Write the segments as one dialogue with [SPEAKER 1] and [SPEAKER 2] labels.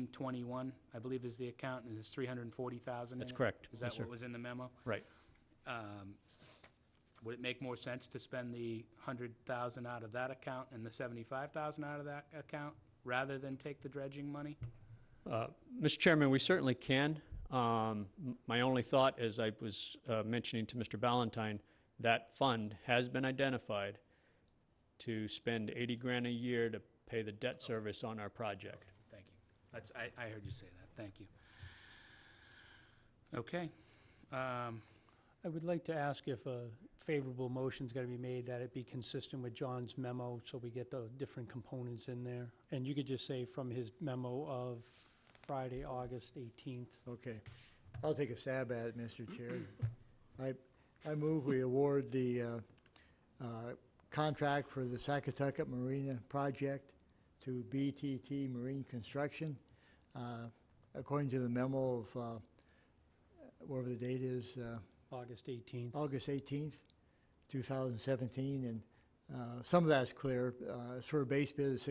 [SPEAKER 1] 1621, I believe is the account, and it's 340,000 in
[SPEAKER 2] That's
[SPEAKER 1] it?
[SPEAKER 2] correct.
[SPEAKER 1] Is
[SPEAKER 2] Yes,
[SPEAKER 1] that
[SPEAKER 2] sir.
[SPEAKER 1] what was in the memo?
[SPEAKER 2] Right.
[SPEAKER 1] Um, Would it make more sense to spend the 100,000 out of that account and the 75,000 out of that account, rather than take the dredging money?
[SPEAKER 2] Uh, Mr. Chairman, we certainly can. Um, m- My only thought, as I was uh, mentioning to Mr. Ballantyne, that fund has been identified to spend 80 grand a year to pay the debt service on our project.
[SPEAKER 1] Thank you. That's, I, I heard you say that, thank you. Okay. Um,
[SPEAKER 3] I would like to ask if a favorable motion's gonna be made, that it be consistent with John's memo, so we get the different components in there. And you could just say from his memo of Friday, August eighteenth.
[SPEAKER 4] Okay. I'll take a stab at it, Mr. Chair. I, I move we award the uh, uh, contract for the Sacotucket Marina project to BTT Marine Construction. uh, According to the memo of, uh, whatever the date is, uh,
[SPEAKER 3] August eighteenth.
[SPEAKER 4] August 18th, 2017, and uh, some of that's clear. Uh, It's for a base bid of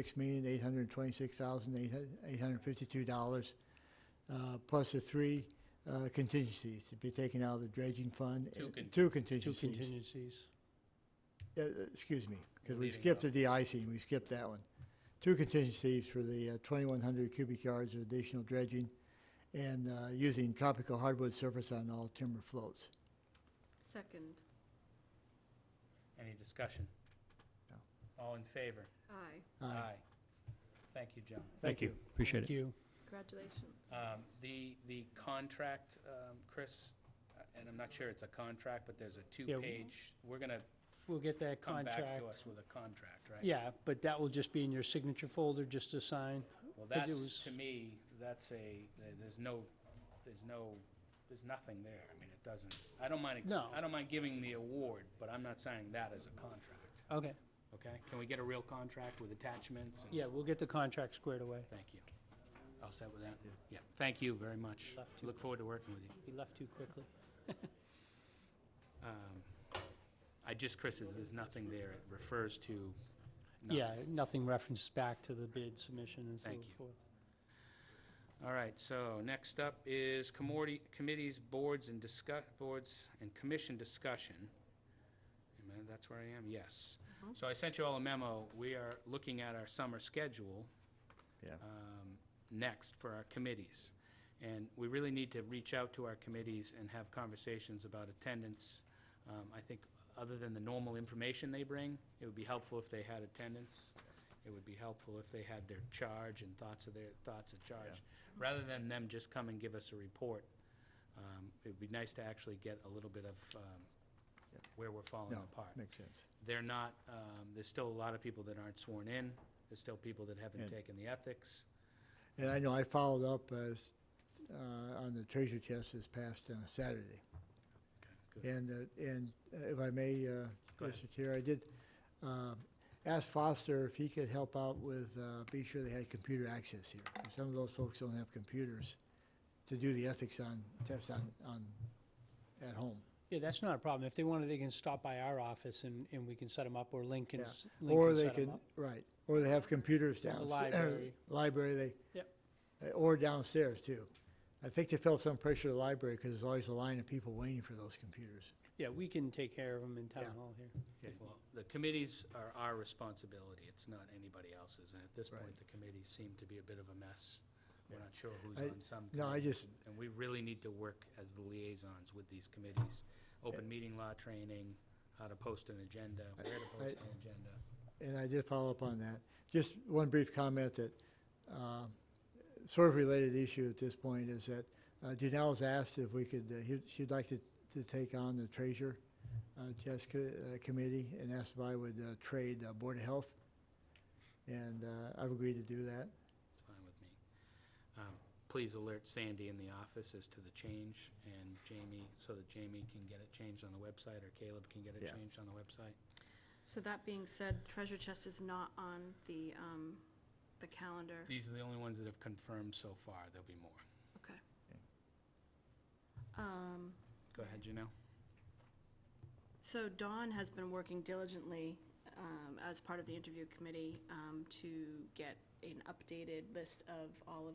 [SPEAKER 4] $6,826,852, uh, plus the three uh, contingencies to be taken out of the dredging fund.
[SPEAKER 1] Two
[SPEAKER 4] and-
[SPEAKER 1] con-
[SPEAKER 4] Two
[SPEAKER 3] Two
[SPEAKER 4] contingencies.
[SPEAKER 3] contingencies.
[SPEAKER 4] Uh, uh, Excuse me, because we
[SPEAKER 1] Leaving it
[SPEAKER 4] skipped the
[SPEAKER 1] out.
[SPEAKER 4] de-icing, we skipped that one. Two contingencies for the uh, 2,100 cubic yards of additional dredging and uh, using tropical hardwood surface on all timber floats.
[SPEAKER 5] Second,
[SPEAKER 1] Any discussion?
[SPEAKER 4] No.
[SPEAKER 1] All in favor?
[SPEAKER 5] aye.
[SPEAKER 4] Aye.
[SPEAKER 1] Thank you, John.
[SPEAKER 4] Uh, Thank you.
[SPEAKER 2] Appreciate
[SPEAKER 3] Thank
[SPEAKER 2] it.
[SPEAKER 3] you.
[SPEAKER 5] Congratulations.
[SPEAKER 1] Um, The, the contract, um, Chris, uh, and I'm not sure it's a contract, but there's a
[SPEAKER 3] w-
[SPEAKER 1] two-page, we're going to
[SPEAKER 3] We'll get that
[SPEAKER 1] come
[SPEAKER 3] contract.
[SPEAKER 1] back to us with a contract, right?
[SPEAKER 3] Yeah, but that will just be in your signature folder, just to sign.
[SPEAKER 1] Well,
[SPEAKER 3] but it
[SPEAKER 1] that's,
[SPEAKER 3] was-
[SPEAKER 1] to me, that's a, there- there's no, there's no, there's nothing there. I mean, it doesn't, I don't mind, ex-
[SPEAKER 3] No.
[SPEAKER 1] I don't mind giving the award, but I'm not signing that as a contract,
[SPEAKER 3] Okay.
[SPEAKER 1] okay? Can we get a real contract with attachments? and-
[SPEAKER 3] Yeah, we'll get the contract squared away.
[SPEAKER 1] Thank you. All set with that? Yeah, thank you very much.
[SPEAKER 3] Left to-
[SPEAKER 1] Look forward to working with you.
[SPEAKER 3] He left too quickly.
[SPEAKER 1] Um, I just, Chris, if there's nothing there, it refers to, no.
[SPEAKER 3] Yeah, nothing references back to the bid submission and so
[SPEAKER 1] Thank you.
[SPEAKER 3] forth.
[SPEAKER 1] All right, so next up is commorti- committees, boards, and discuss, boards and commission discussion. Am I- That's where I am, yes.
[SPEAKER 5] Mhm.
[SPEAKER 4] Uh-huh.
[SPEAKER 1] So I sent you all a memo. We are looking at our summer schedule.
[SPEAKER 4] Yeah.
[SPEAKER 1] um, Next for our committees. And we really need to reach out to our committees and have conversations about attendance. Um, I think, other than the normal information they bring, it would be helpful if they had attendance. It would be helpful if they had their charge and thoughts of their, thoughts of charge. Rather than them just come and give us a report, um, it'd be nice to actually get a little bit of um,
[SPEAKER 4] Yeah.
[SPEAKER 1] where we're falling
[SPEAKER 4] No,
[SPEAKER 1] apart.
[SPEAKER 4] makes sense.
[SPEAKER 1] They're not, um, there's still a lot of people that aren't sworn in. There's still people that haven't
[SPEAKER 4] And-
[SPEAKER 1] taken the ethics.
[SPEAKER 4] And I know I followed up as, uh, on the treasure chest this past uh, Saturday.
[SPEAKER 1] Okay, good.
[SPEAKER 4] And, uh, and uh, if I may, uh,
[SPEAKER 1] Go ahead.
[SPEAKER 4] Mr. Chair, I did, um, ask Foster if he could help out with, uh, be sure they had computer access here. 'Cause Some of those folks don't have computers to do the ethics on, test on, on, at home.
[SPEAKER 3] Yeah, that's not a problem. If they want, they can stop by our office and, and we can set them up, or Lincoln.
[SPEAKER 4] Yeah. Or they can, right, or they have computers downstairs.
[SPEAKER 3] library.
[SPEAKER 4] Library, they.
[SPEAKER 3] Yep.
[SPEAKER 4] uh, Or downstairs too. I think they felt some pressure at the library because there's always a line of people waiting for those computers.
[SPEAKER 3] Yeah, we can take care of them in town
[SPEAKER 4] Yeah.
[SPEAKER 3] hall here.
[SPEAKER 4] Okay.
[SPEAKER 1] Well, the committees are our responsibility. It's not anybody else's. And at this point,
[SPEAKER 4] Right.
[SPEAKER 1] the committees seem to be a bit of a mess. We're
[SPEAKER 4] Yeah.
[SPEAKER 1] not sure who's
[SPEAKER 4] I-
[SPEAKER 1] on some.
[SPEAKER 4] no, I
[SPEAKER 1] committees,
[SPEAKER 4] just-
[SPEAKER 1] and- And we really need to work as the liaisons with these committees. Open meeting law training, how to post an agenda,
[SPEAKER 4] I-
[SPEAKER 1] where to post
[SPEAKER 4] I-
[SPEAKER 1] an agenda.
[SPEAKER 4] And I did follow up on that. Just one brief comment that, uh, sort of related issue at this point is that uh, Janelle's asked if we could, uh, he- she'd like to, to take on the treasure uh, chest co- uh, committee and asked if I would uh, trade uh, Board of Health. And uh, I've agreed to do that.
[SPEAKER 1] It's fine with me. Um, Please alert Sandy in the office as to the change and Jamie, so that Jamie can get it changed on the website or Caleb can get it
[SPEAKER 4] Yeah.
[SPEAKER 1] changed on the website.
[SPEAKER 5] So that being said, treasure chest is not on the, um, the calendar.
[SPEAKER 1] These are the only ones that have confirmed so far. There'll be more.
[SPEAKER 5] Okay. Um,
[SPEAKER 1] Go ahead, Janelle.
[SPEAKER 5] so Dawn has been working diligently, um, as part of the interview committee, um, to get an updated list of all of